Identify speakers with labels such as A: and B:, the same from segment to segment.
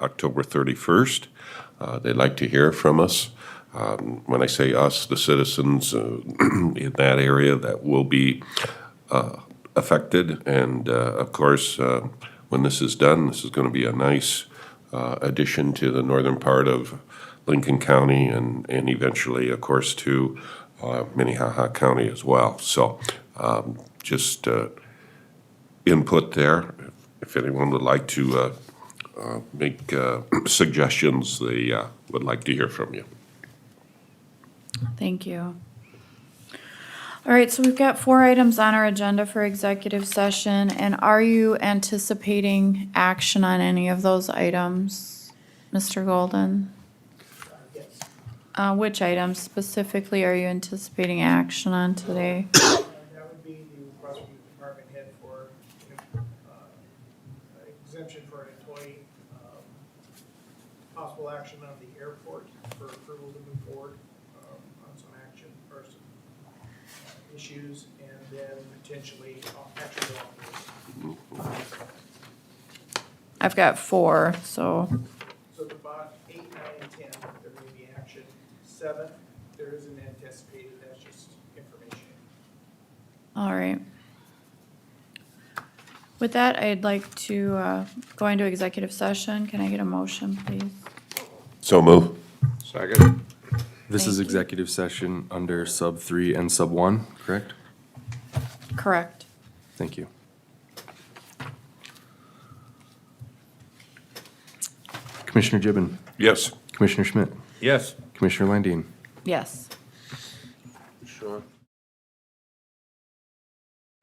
A: October 31st. Uh, They'd like to hear from us. Um, When I say us, the citizens uh, in that area that will be uh, affected. And uh, of course, uh, when this is done, this is going to be a nice uh, addition to the northern part of Lincoln County and, and eventually, of course, to uh, Minnehaha County as well. So um, just uh, input there. If anyone would like to uh, uh, make uh, suggestions, they uh, would like to hear from you.
B: Thank you. All right, so we've got four items on our agenda for executive session, and are you anticipating action on any of those items, Mr. Golden? Uh, which items specifically are you anticipating action on today?
C: That would be the request from the department head for uh, exemption for an employee, um, possible action on the airport for approval to move forward um, on some action or some uh, issues, and then potentially uh, action on
B: I've got four, so,
C: So the bot, eight, nine, and ten, there may be action. Seven, there isn't anticipated, that's just information.
B: all right. With that, I'd like to, uh, go into executive session. Can I get a motion, please?
A: So move.
D: Second.
E: This is
B: Thank you.
E: executive session under sub three and sub one, correct?
B: Correct.
E: Thank you. Commissioner Gibbon,
A: Yes.
E: Commissioner Schmidt,
D: Yes.
E: Commissioner Landine.
B: Yes.
D: Sure.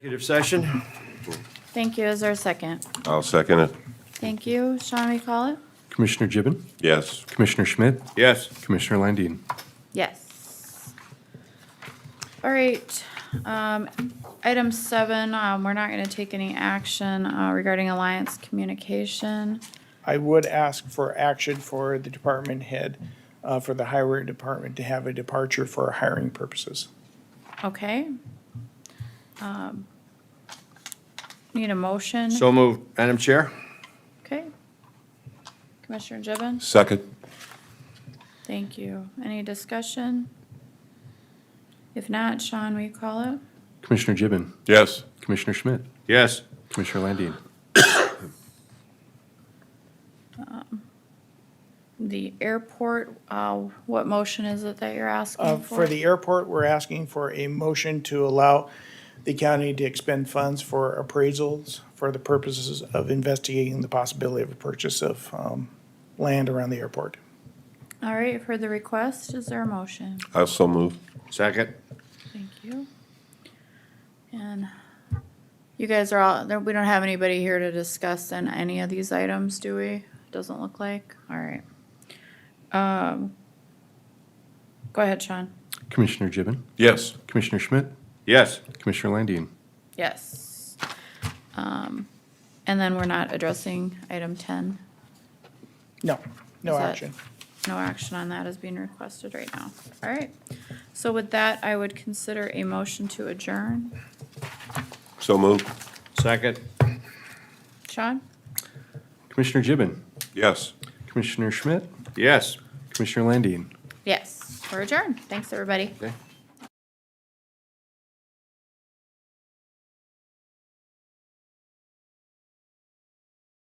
D: Executive session?
B: Thank you. Is there a second?
A: I'll second it.
B: Thank you. Sean, we call it?
E: Commissioner Gibbon,
A: Yes.
E: Commissioner Schmidt,
D: Yes.
E: Commissioner Landine.
B: Yes. All right. Um, item seven, um, we're not gonna take any action, uh, regarding Alliance Communication.
C: I would ask for action for the department head, uh, for the highway department to have a departure for hiring purposes.
B: Okay? Um, Need a motion?
D: So moved. Madam Chair?
B: Okay. Commissioner Gibbon?
A: Second.
B: Thank you. Any discussion? If not, Sean, we call it?
E: Commissioner Gibbon,
A: Yes.
E: Commissioner Schmidt,
D: Yes.
E: Commissioner Landine.
B: The airport, uh, what motion is it that you're
C: Uh,
B: asking for?
C: For the airport, we're asking for a motion to allow the county to expend funds for appraisals for the purposes of investigating the possibility of a purchase of um, land around the airport.
B: All right, you've heard the request. Is there a motion?
A: I'll so move.
D: Second?
B: Thank you. And you guys are all, there- we don't have anybody here to discuss on any of these items, do we? Doesn't look like. All right. Um, Go ahead, Sean.
E: Commissioner Gibbon,
A: Yes.
E: Commissioner Schmidt,
D: Yes.
E: Commissioner Landine.
B: Yes. Um, And then we're not addressing item 10.
C: No, no
B: Is that-
C: action.
B: No action on that is being requested right now. All right. So with that, I would consider a motion to adjourn.
A: So move.
D: Second?
B: Sean?
E: Commissioner Gibbon,
A: Yes.
E: Commissioner Schmidt,
D: Yes.
E: Commissioner Landine.
B: Yes, we're adjourned. Thanks, everybody.
E: Okay.